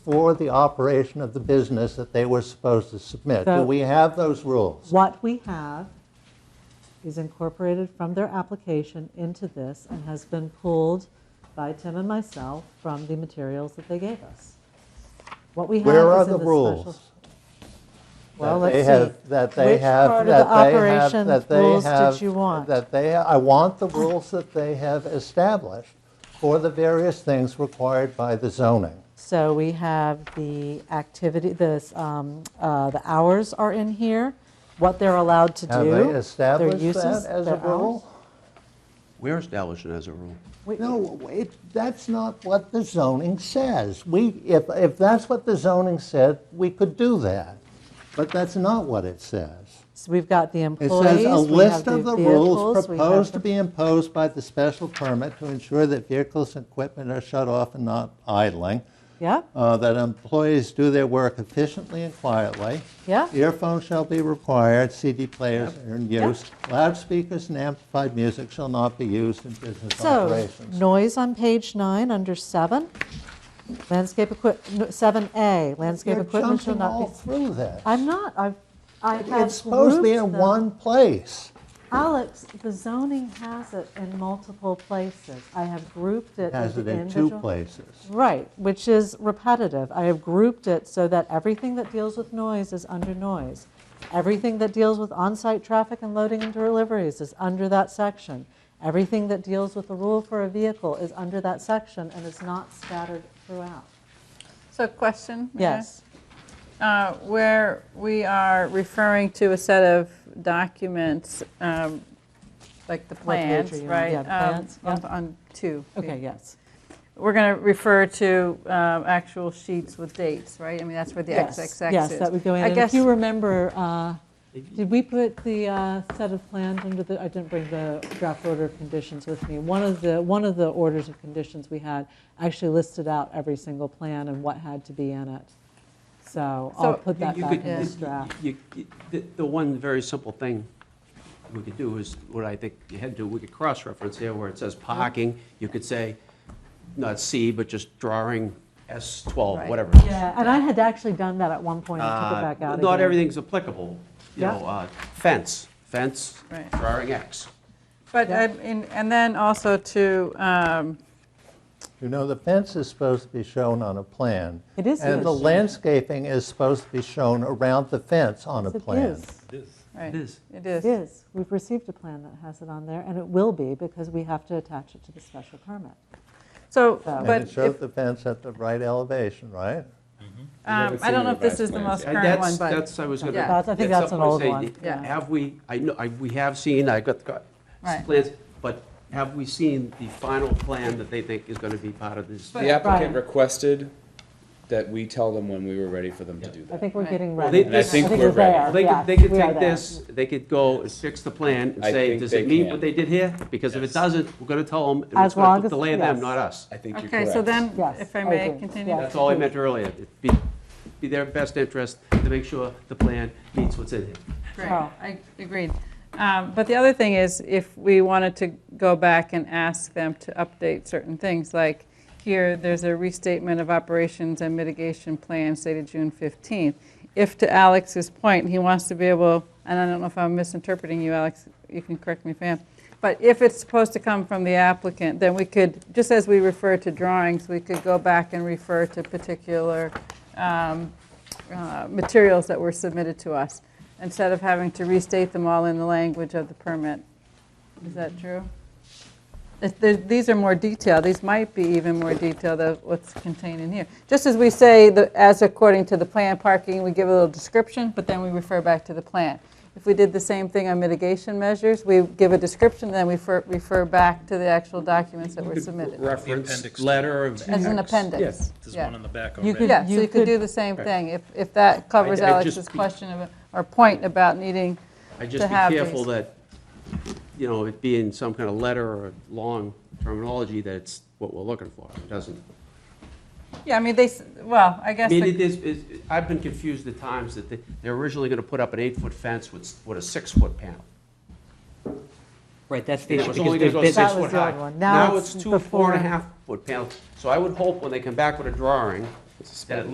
for the operation of the business that they were supposed to submit. Do So- we have those rules? What we have is incorporated from their application into this and has been pulled by Tim and myself from the materials that they gave us. What we have is in Where the are special... the rules? Well, that they let's have- see. That they have, Which part that of they the have, operation that they rules have. did you want? That they, I want the rules that they have established for the various things required by the zoning. So we have the activity, this, um, uh, the hours are in here, what they're allowed to do. Have they their established uses, that as a their hours. rule? We're established as a rule. We- No, it, that's not what the zoning says. We, if, if that's what the zoning said, we could do that. But that's not what it says. So we've got the It employees, says we a have list the of the rules vehicles, we have proposed the- to be imposed by the special permit to ensure that vehicles and equipment are shut off and not idling, Yeah, uh, that employees do their work efficiently and quietly. Yeah. Earphones shall be required, CD players are in use. Loudspeakers and amplified music shall not be used in business so operations. noise on page nine, under seven, landscape equip, no, 7A, landscape You're equipment shall jumping not all be. through this. I'm not, I've, I have grouped It's supposed to be in them. one place. Alex, the zoning has it in multiple places. I have grouped it Has it as in two individual. places. Right, which is repetitive. I have grouped it so that everything that deals with noise is under noise. Everything that deals with on-site traffic and loading and deliveries is under that section. Everything that deals with the rule for a vehicle is under that section and is not scattered throughout. So question? may I? Yes, Uh, Where we are referring to a set of documents, um, like the page plans, are you on? right? Yeah, the um, plans, on- yeah. On two. okay, yes. We're going to refer to um, actual sheets with dates, right? I mean, that's where the Yes, XXX is. Yes, that would go in. I And if guess, you remember, uh, did we put the uh, set of plans under the, I didn't bring the draft order of conditions with me. One of the, one of the orders of conditions we had actually listed out every single plan and what had to be in it. So I'll So- put that You back could- in this you- draft. you- you- The the one very simple thing we could do is, what I think you had to, do, we could cross-reference here where it says parking, you could say, not C, but just drawing S12, Right. whatever. Yeah, and I had actually done that at one point, I took it Uh, back out again. Not everything's applicable, you Yeah. know, uh, fence, fence, Right. drawing X. but, Yeah. um, in- and then also to, um, You know, the fence is supposed to be shown on a plan. It is And the used. landscaping is supposed to be shown around the fence on a Yes, it plan. is. right. It is. It It is. is. We've received a plan that has it on there, and it will be because we have to attach it to the special permit. So, And And but it shows if- the fence at the right elevation, right? um, I don't know if this is the most Uh, current one, That's, but. that's, I was gonna. Yeah. That's- I think that's an what I was old saying. one, yeah. Have we, I know, I, we have seen, I got the Right. plans, but have we seen the final plan that they think is gonna be part of this? But- The applicant Brian. requested that we tell them when we were ready for them to do I that. think we're Right. getting Well, ready. they- And I think we're we're there. ready. They Yes, could, they could we are take there. this, they could go and fix the plan and I say, think does they it meet can. what they did here? Because if it Yes. doesn't, we're gonna tell them, and As it's gonna long as- delay them, yes. not us. I think you're correct. Okay, so then, Yes, if I I may agree. continue. Yes. That's all I meant earlier, It'd be, be their best interest to make sure the plan meets what's in here. Great, Oh. I agreed. Um, But the other thing is, if we wanted to go back and ask them to update certain things, like here, there's a restatement of operations and mitigation plan stated June 15th. If, to Alex's point, he wants to be able, and I don't know if I'm misinterpreting you, Alex, you can correct me if I am, but if it's supposed to come from the applicant, then we could, just as we refer to drawings, we could go back and refer to particular um, uh, materials that were submitted to us, instead of having to restate them all in the language of the permit. Is that true? If there- These are more detailed, these might be even more detailed than what's contained in here. Just as we say, the- as according to the plan parking, we give a little description, but then we refer back to the plan. If we did the same thing on mitigation measures, we give a description, then we fer- refer back to the actual documents that were submitted. Reference, appendix to letter of. As an X. appendix. Yes. There's Uh, Yeah. one on the back You already. Yeah, so you could do the same thing, if, if that covers I- I just Alex's be- question of- or point about needing I to just be have careful these. that, you know, it being some kind of letter or long terminology, that it's what we're looking for. It doesn't. Yeah, I mean, they, s- well, I I guess, mean, the- it is, is- I've been confused at times that they- they're originally going to put up an eight-foot fence with, with a six-foot panel. Right, that's the It issue. was because only going they've to go been- That six was foot the high. old one. Now Now it's it's two, four and a before. half foot panels. So I would hope when they come back with a drawing, that at